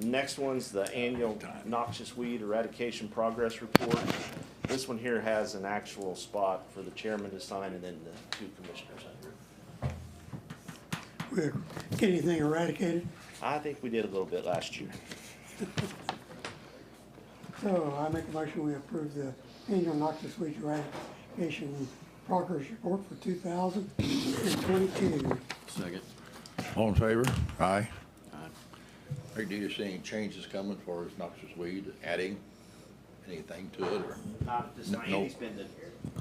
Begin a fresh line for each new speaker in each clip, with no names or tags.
Next one's the annual noxious weed eradication progress report. This one here has an actual spot for the chairman to sign and then the two commissioners.
We're- Get anything eradicated?
I think we did a little bit last year.
So I make a motion, we approve the annual noxious weed eradication progress report for two thousand and twenty-two.
Second.
All in favor? Aye.
Hey, do you see any changes coming for noxious weed, adding anything to it, or?
Not at this time.
No.
Andy's been to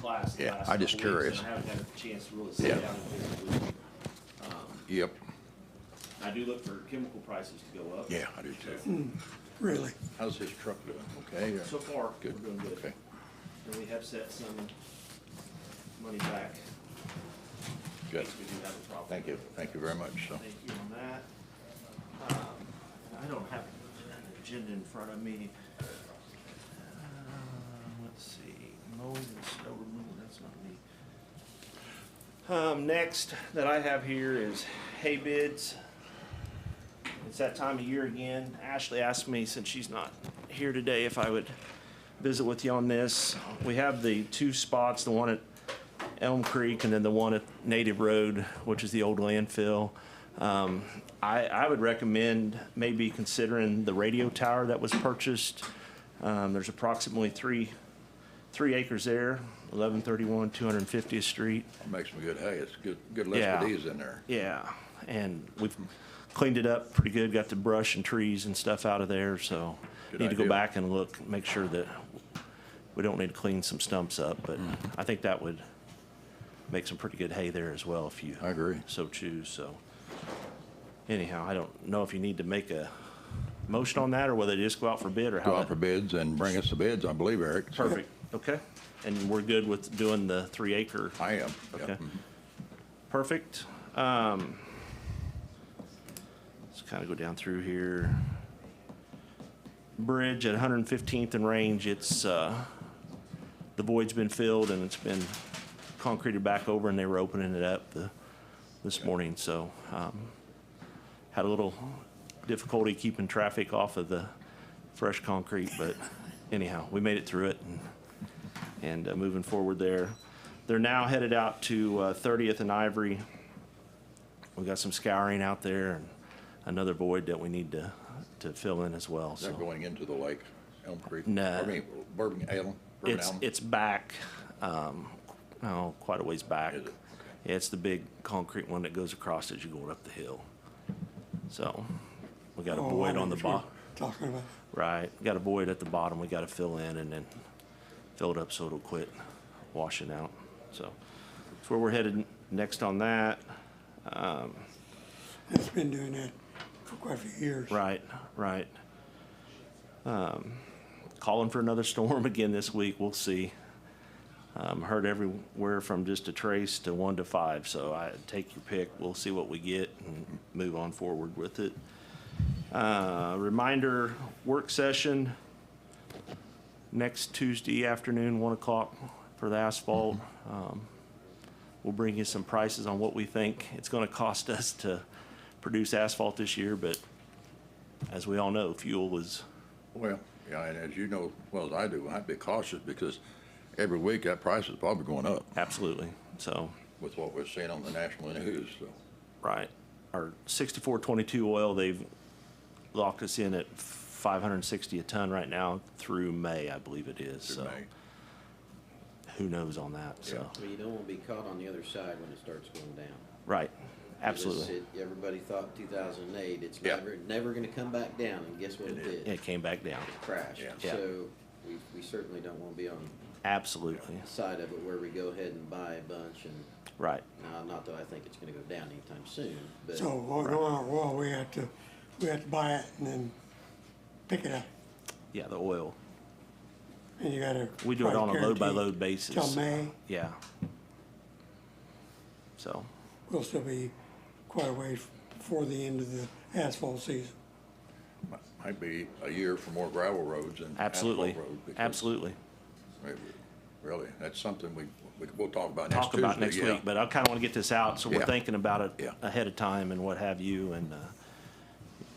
class the
Yeah,
last
I'm just
couple weeks,
curious.
and I haven't had a chance to really sit
Yeah.
down and visit with him.
Yep,
I do look for chemical prices to go up.
yeah, I do too.
Really?
How's his truck doing, okay? or-
So far, we're
Good,
doing good.
okay.
And we have set some money back. in
Good,
case We do have a problem.
thank you, thank you very much, so.
Thank you on that. Um, I don't have an agenda in front of me. Uh, Let's see, mowing and snow removal, that's not me. Um, next that I have here is hay bids. It's that time of year again. Ashley asked me, since she's not here today, if I would visit with you on this. We have the two spots, the one at Elm Creek and then the one at Native Road, which is the old landfill. Um, I, I would recommend maybe considering the radio tower that was purchased. Um, there's approximately three, three acres there, eleven thirty-one, two hundred and fiftieth street.
Makes some good hay, it's good, good
Yeah.
lesbides in there.
Yeah, and we've cleaned it up pretty good, got the brush and trees and stuff out of there, so
Good
need to go
idea.
back and look, make sure that we don't need to clean some stumps up, but
Mm.
I think that would make some pretty good hay there as well if you
I agree.
so choose, so. Anyhow, I don't know if you need to make a motion on that or whether you just go out for bid or how.
Go out
that-
for bids and bring us the bids, I believe, Eric. so-
Perfect, okay. And we're good with doing the three acre?
I am,
Okay.
yep.
Perfect. Um, let's kind of go down through here. Bridge at 115th and Range, it's, uh, the void's been filled and it's been concreted back over and they were opening it up the, this morning, so, um, had a little difficulty keeping traffic off of the fresh concrete, but anyhow, we made it through it and and uh, moving forward there. They're now headed out to uh, 30th and Ivory. We got some scouring out there and another void that we need to, to fill in as well,
Is that
so.
going into the lake, Elm Creek?
No.
I mean, Bourbon, Elm, Bourbon
It's,
Elm?
it's back, um, oh, quite a ways back.
Is it?
Yeah, It's the big concrete one that goes across as you're going up the hill. So, we
Oh,
got a void on the bottom.
Talking about,
Right, got a void at the bottom, we gotta fill in and then fill it up so it'll quit washing out, so. That's where we're headed next on that,
it's been doing that for quite a few years.
right, right. Um, Calling for another storm again this week, we'll see. Um, heard everywhere from just a trace to one to five, so I, take your pick, we'll see what we get and move on forward with it. Uh, reminder, work session, next Tuesday afternoon, one o'clock for the asphalt. Um, We'll bring you some prices on what we think it's gonna cost us to produce asphalt this year, but as we all know, fuel is,
Well, yeah, and as you know, as well, as I do, I'd be cautious because every week that price is probably going up
absolutely, so,
with what we're seeing on the national news, so.
right. Our sixty-four twenty-two oil, they've locked us in at five hundred and sixty a ton right now through May, I believe it is,
it
so
may.
who knows on that, so,
Well, you don't want to be caught on the other side when it starts going down.
right,
Because
absolutely.
it- Everybody thought 2008, it's
Yeah.
never, never going to come back down, and guess what it did?
It came back down,
Crashed.
Yeah.
Yeah.
So we, we certainly don't want to be on
absolutely,
the side of it where we go ahead and buy a bunch and,
right.
now, not that I think it's going to go down anytime soon, but.
So while going on, well, we had to, we had to buy it and then pick it up.
Yeah, the oil.
And you gotta.
We do it
try to
on a load by
guarantee
load basis.
Till May,
Yeah. So,
we'll still be quite a ways before the end of the asphalt season.
mi- Might be a year for more gravel roads and asphalt
absolutely,
roads. because,
absolutely.
I mean, Really, that's something we, we- we'll talk about next
Talk
Tuesday.
about next
yeah.
week, but I kind of want to get this out, so we're
Yeah.
thinking about it
Yeah.
ahead of time and what have you, and, uh,